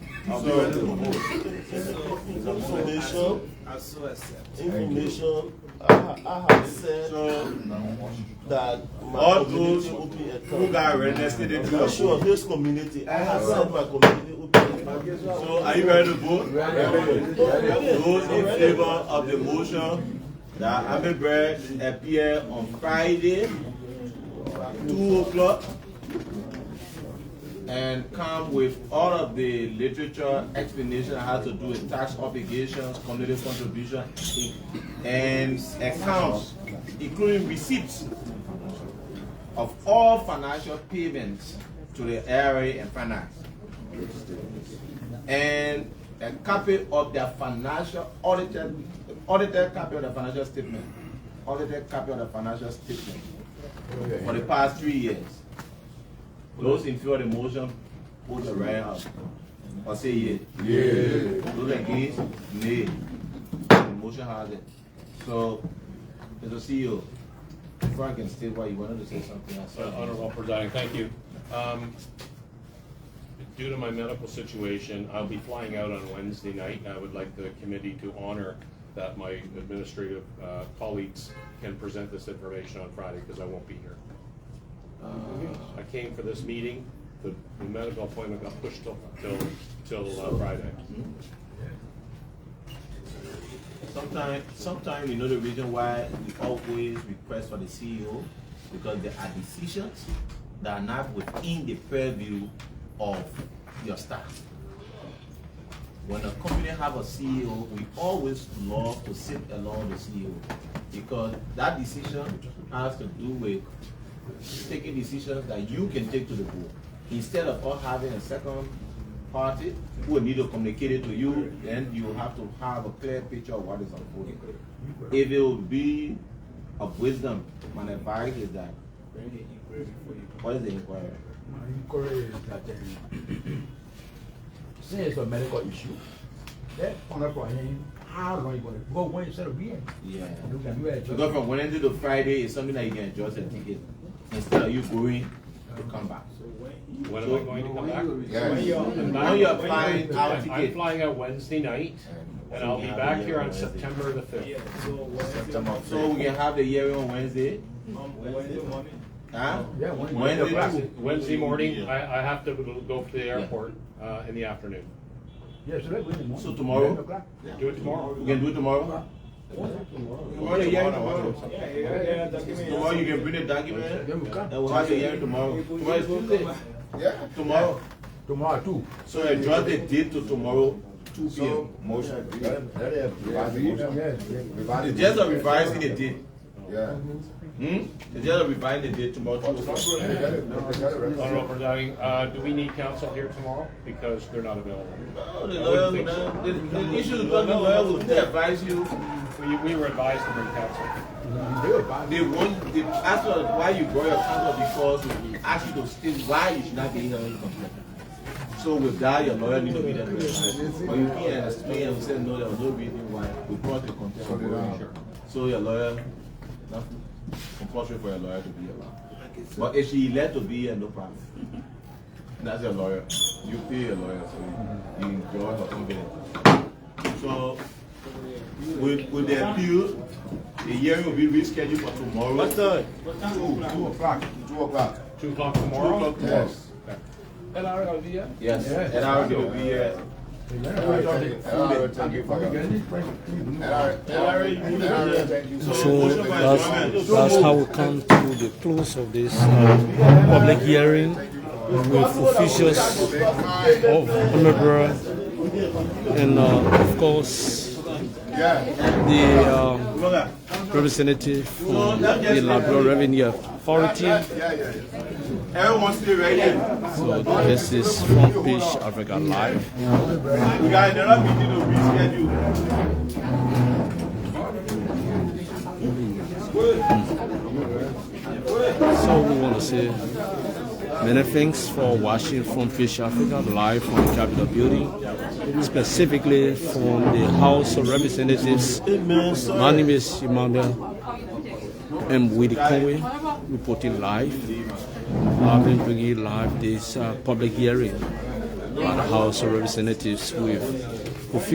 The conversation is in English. So, information, I so accept. information, I, ha- I have said So, that my all those community who open got account. arrested, they do I'm not sure vote. of this community, I have said my community open account. So, are you ready to vote? Those in favor of the motion that Happy Bread appear on Friday, two o'clock, and come with all of the literature explanation how to do with tax obligations, community contribution, and accounts, including receipts of all financial payments to the area and finance and a copy of their financial audited, audited copy of the financial statement, audited copy of the financial statement for the past three years. Those in favor of the motion, put your right hand up or say yea. Those against, nay. The motion has it. So, Mr. CEO, before I can state why you wanted to say something, I Uh, saw. Honorable presiding, thank you. Um, Due to my medical situation, I'll be flying out on Wednesday night, and I would like the committee to honor that my administrative uh, colleagues can present this information on Friday, because I won't be here. Uh, I came for this meeting, the the medical appointment got pushed till, till, till uh, Friday. Sometimes, sometimes you know the reason why we always request for the CEO because there are decisions that are not within the purview of your staff. When a company have a CEO, we always love to sit along the CEO because that decision has to do with taking decisions that you can take to the board instead of us having a second party who will need to communicate it to you. Then you have to have a clear picture of what is unfolding. If it would be of wisdom, my advice is that what is the inquiry? My inquiry is that um, since it's a medical issue, that find out for him how long he gonna go when instead of being. Yeah. And we can do that. So go from Wednesday to Friday is something that you can adjust your ticket instead of you going to come back. When am I going to come back? I'm not- Now you're applying our I'm I'm ticket. flying out Wednesday night, and I'll be back here on September the Yeah, fifth. so Wednesday, So we can have the hearing on Wednesday, um, Wednesday morning. huh? Yeah, when- Wednesday Wednesday- too. Wednesday morning, I, I have to go to the airport, uh, in the afternoon. Yeah, so that's when in the morning. So tomorrow? Eleven o'clock. Do it tomorrow. We can do it tomorrow? Tomorrow, the hearing tomorrow. Yeah, yeah, yeah, that give me- Tomorrow you can bring the document, Then and we come. we'll have the hearing tomorrow. Tomorrow is Tuesday. Yeah. Tomorrow. Tomorrow too. So adjust the date to tomorrow, two P M. Motion. Yes, yes. It's just a revising the date. Yeah. Hmm? It's just a revising the date tomorrow. two o'clock. They got it. They got it right. Honorable presiding, uh, do we need counsel here tomorrow? Because they're not available. No, the I lawyer, wouldn't think so. will- the, the issue is because the lawyer will still advise you, We, we were advised to bring counsel. They will buy- they won't, they ask us why you brought your counsel because we ask you to state why you should not be hearing complaint. So with that, your lawyer need to be there to advise you. But you can't explain and say, no, there was no reason why we brought the complaint. So they don't- So your lawyer, not compulsory for your lawyer to be allowed. But if she elect to be here, no problem. That's your lawyer. You pay your lawyer, so you enjoy her company. So, with, with the appeal, the hearing will be rescheduled for tomorrow. What time? Two, two o'clock. Two Two o'clock. o'clock Two o'clock tomorrow? tomorrow. Yes. Yes, Yes. and I will be here. Alright, thank you. Alright, thank you. We get Alright, this price, we do that. alright, thank you. So, So, motion So by that's, Joanne. that's how we come to the close of this uh, public hearing with officials of Honorable and uh, of course Yeah. the um, Brother, representative from the Labrador Revenue Authority. Yeah, yeah, yeah. everyone stay right here. So this is front page Africa Live. We got another meeting to reschedule. So we want to say many thanks for watching from Fish Africa live from Capitol Building, specifically from the House of Representatives. My name is Emmanuel M. Willie Conway, reporting live. I've been bringing live this uh, public hearing other House of Representatives who have who